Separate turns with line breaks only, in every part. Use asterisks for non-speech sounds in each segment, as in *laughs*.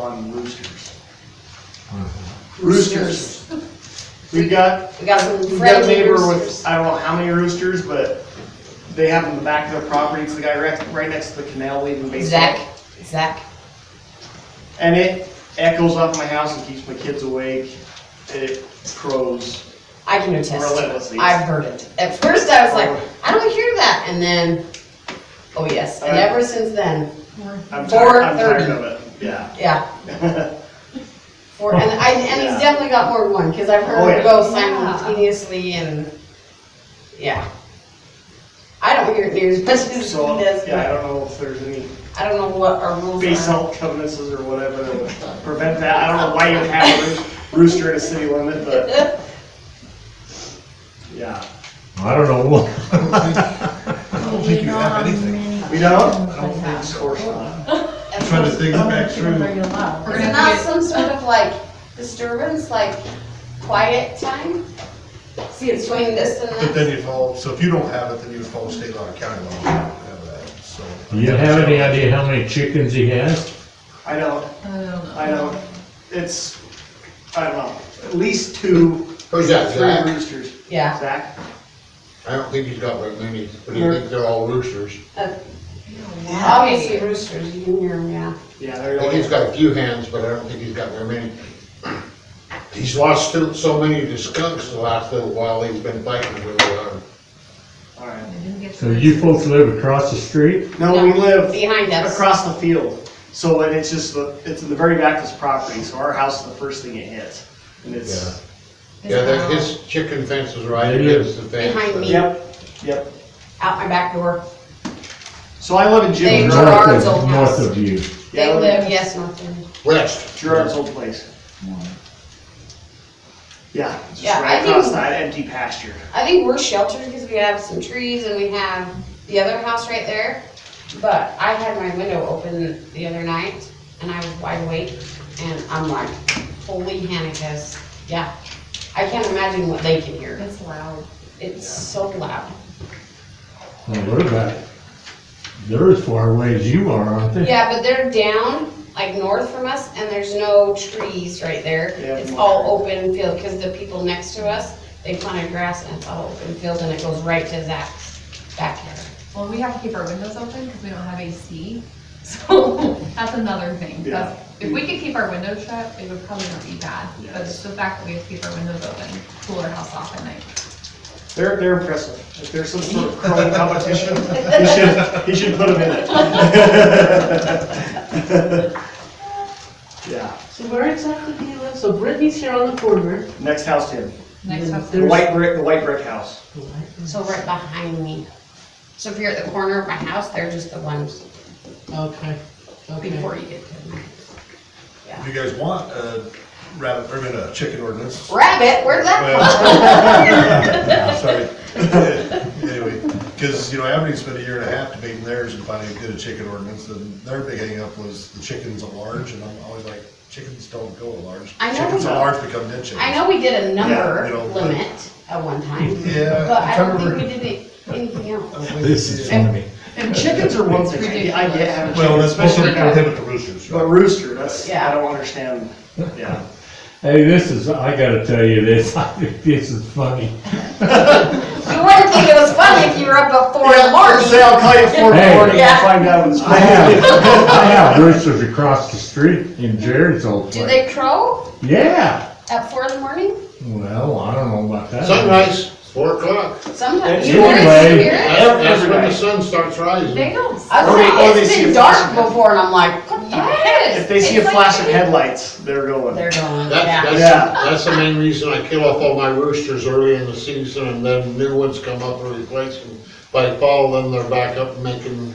on roosters. Roosters. We've got,
We got some
we've got a
friendly
neighbor with,
roosters.
I don't know how many roosters, but they have them in the back of their property, it's the guy right, right next to the canal leaving baseball.
Zach, Zach,
And it echoes off my house and keeps my kids awake, it crows.
I can attest. to
Relentlessly.
it. I've heard it. At first I was like, I don't hear that, and then, oh yes, and
Uh,
ever since then,
I'm tired, I'm tired
4:30.
of it, yeah.
yeah. For, and I, and
Yeah.
he's definitely got more than one, cause I've
Oh,
heard
yeah.
it go simultaneously and, yeah. I don't hear it near as much as
*laughs*
he
So,
does,
yeah, I don't
but
know if there's any
I don't know what our rules are. *laughs*
basalt covenants or whatever that would prevent that, I don't know why you would have a rooster in a city limit, but, yeah.
I don't know what.
I don't think you have anything.
We don't?
I don't think
Of
so.
course not.
I'm Trying to think back through.
Is
We're
it
gonna
not
have
some sort of like disturbance, like quiet time? See, it's between this
But
and that.
then you follow, so if you don't have it, then you follow state law and county law. You have that, so.
Do *laughs* you have any idea how many chickens he has?
I don't,
to- I don't know.
I don't, it's, I don't know, at least two,
Who's that,
three
Zach?
roosters.
Yeah,
Zach?
I don't think he's got very many, but he thinks they're all roosters.
obviously roosters, you can hear them, yeah.
Yeah,
I
they're
think he's
only,
got a few hands, but I don't think he's got very many. He's lost so- so many of the skunks the last little while, he's been fighting uh, really hard.
alright.
So you folks live across the street?
No, we live
Behind us.
across the field, so and it's just, the- it's in the very back of this property, so our house is the first thing it hits. And it's,
Yeah, that, his chicken fence is right
Maybe
against the fence.
Behind
but-
me.
yep, yep.
Out my back door.
So I live in
They-
Jim
North
Gerard-
Gerard's
of-
old house.
North of you.
Yeah,
They
we-
live, yes, north end.
West.
Gerard's old place. Yeah, just
Yeah, I
right
think-
across that empty pasture.
I think we're sheltered because we have some trees and we have the other house right there. But I had my window open the other night and I was wide awake and I'm like, holy Hanukkahs, yeah. I can't imagine what they can hear.
It's loud.
It's so loud.
Well, we're about, they're as far away as you are, aren't they?
Yeah, but they're down, like north from us, and there's no trees right there.
Yeah.
It's all open field, because the people next to us, they planted grass and it's all open field, and it goes right to Zach's backyard.
Well, we have to keep our windows open because we don't have AC, *laughs* so that's another thing.
Yeah.
That's- If we could keep our windows shut, it would probably not be bad, but it's the fact that we have to keep our windows open, cool our house off at night.
They're, they're impressive. If there's some sort of *laughs* crowing competition, he should, he should put them *laughs* in it. Yeah,
So where exactly do you live? So Brittany's here on the corner.
next house to him,
Next house.
the white brick, the white brick house.
So right behind me. So if you're at the corner of my house, they're just the ones
Okay, okay.
before you get to them.
Do you guys want a rabbit, or I mean, a chicken
*laughs*
ordinance?
Rabbit, where's that
Well, *laughs* Sorry. Anyway, because, you know, Avenue spent a year and a half debating theirs and finally did a chicken ordinance, and their big hangup was the chickens at large, and I'm always like, chickens don't go at large.
I know.
Chickens at large become dead
from?
chickens.
I know we did a number
you know, but-
limit at one time,
Yeah.
but I don't think
remember-
we did any- anything else.
*laughs* This is funny.
And chickens are one thing, I I get having
Well,
chickens,
especially
*laughs*
especially,
with him at the roosters.
but rooster, that's, I don't understand, yeah.
Hey, this is, I gotta tell you this, *laughs* I think this is funny.
You wouldn't think it was funny if you were up at four in the morning.
Thursday, I'll call you at four in the
Hey.
morning and
Yeah.
find out what's
I
going
have,
on.
I have roosters across the street in Jared's old
Do
place.
they crow
Yeah,
at four in the morning?
well, I don't know about that.
Sunrise, four o'clock.
Sometimes
It's
you hear it,
anyway.
you hear it.
That's that's when
Everybody.
the sun starts rising.
They don't.
I was
Or they- or
like,
they
it's
see a
been dark
flash of-
before, and I'm like, what the heck?
Yes.
If they see a
It's like-
flash of headlights, they're going.
They're going,
That's,
yeah.
Yeah.
that's, that's the main reason I kill off all my roosters early in the season and then new ones come up and replace them. By fall, then they're back up making,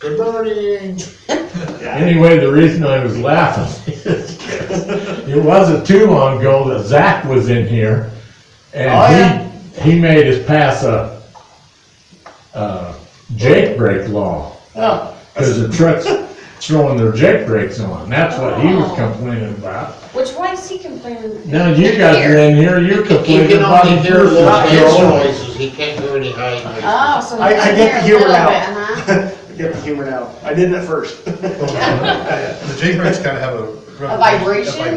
good morning.
Yeah.
Anyway, the reason I was laughing *laughs* is 'cause it wasn't too long ago that Zach was in here
Oh, yeah.
and he, he made us pass a, uh, jake brake law.
Oh,
Cause the
*laughs*
trucks throwing their jake brakes on. That's what he was
Oh.
complaining about.
Which, why is he complaining?
Now you guys are in here, you're
He
complaining
can
about
only
his
hear little
roosters
dance
going.
noises, he can't hear any high noises.
Oh, so
I, I get the humor now.
now.
I get the humor now. I didn't at first. *laughs*
The J-Breaks kind of have a a vibration